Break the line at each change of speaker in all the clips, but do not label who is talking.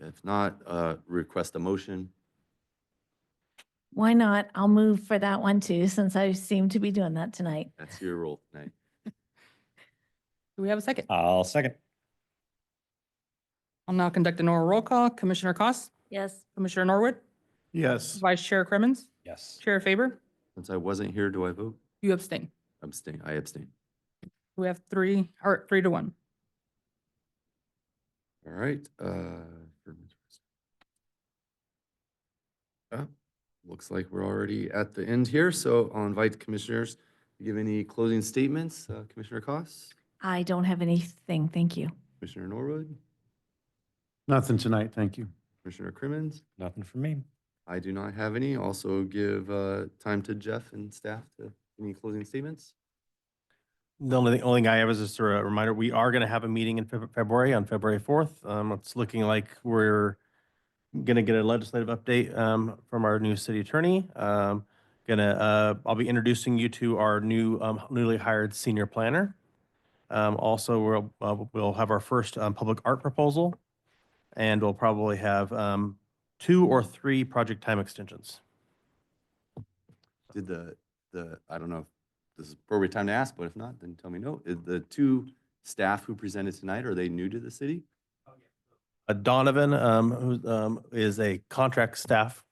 If not, uh, request a motion.
Why not? I'll move for that one too, since I seem to be doing that tonight.
That's your role tonight.
Do we have a second?
I'll second.
I'll now conduct an oral roll call. Commissioner Cost,
Yes.
Commissioner Norwood,
Yes.
Vice Chair Crimmins,
Yes.
Chair Faber,
Since I wasn't here, do I vote?
you abstain.
Abstain, I abstain.
We have three, or three to one.
All right, uh. for- Uh, Looks like we're already at the end here, so I'll invite commissioners to give any closing statements. Uh, Commissioner Costs,
I don't have anything. Thank you.
Commissioner Norwood,
Nothing tonight, thank you.
Commissioner Crimmins.
Nothing for me.
I do not have any. Also give uh, time to Jeff and staff to any closing statements.
The only, thing- only thing I have is just a re- reminder, we are going to have a meeting in Feb- February, on February 4th. Um, It's looking like we're going to get a legislative update um, from our new city attorney. Um, Gonna, uh, I'll be introducing you to our new um, newly hired senior planner. Um, Also, we'll, uh, we'll have our first um, public art proposal. And we'll probably have um, two or three project time extensions.
Did the, the, I don't know if this is appropriate time to ask, but if not, then tell me no. Is The two staff who presented tonight, are they new to the city?
Uh, Donovan, um, who, um, is a contract staff,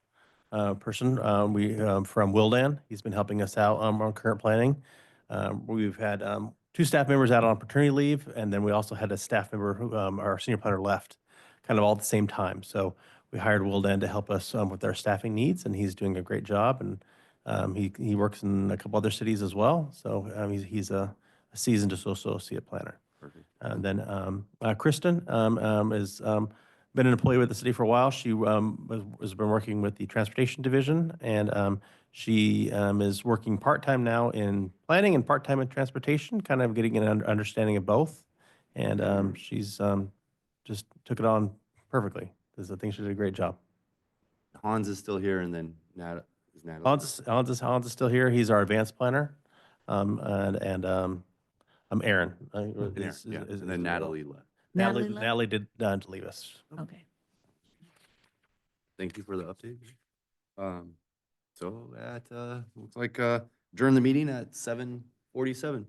uh, person, um, we, um, from Wildan. He's been helping us out, um, on current planning. Um, we've had, um, two staff members out on paternity leave, and then we also had a staff member who, um, our senior planner left kind of all at the same time. So we hired Wildan to help us, um, with our staffing needs, and he's doing a great job. And, um, he, he works in a couple other cities as well. So, um, he's, he's a a seasoned associate planner.
Perfect.
And then um, uh, Kristen um, um, has um, been an employee with the city for a while. She um, was- has been working with the Transportation Division, and um, she um, is working part-time now in planning and part-time in transportation, kind of getting an un- understanding of both. And um,
Mm-hmm.
she's um, just took it on perfectly. 'cause I think she did a great job.
Hans is still here and then Nat, is Natalie?
Hans, is- Hans is, Hans is still here. He's our advanced planner. Um, And, and um, um, Aaron. uh,
And Aaron,
is-
yeah,
is-
And
is-
then Natalie left.
Natalie,
Natalie left?
Natalie did not leave us.
Okay.
Thank you for the update. Um, So that, uh, looks like, uh, during the meeting at seven forty-seven.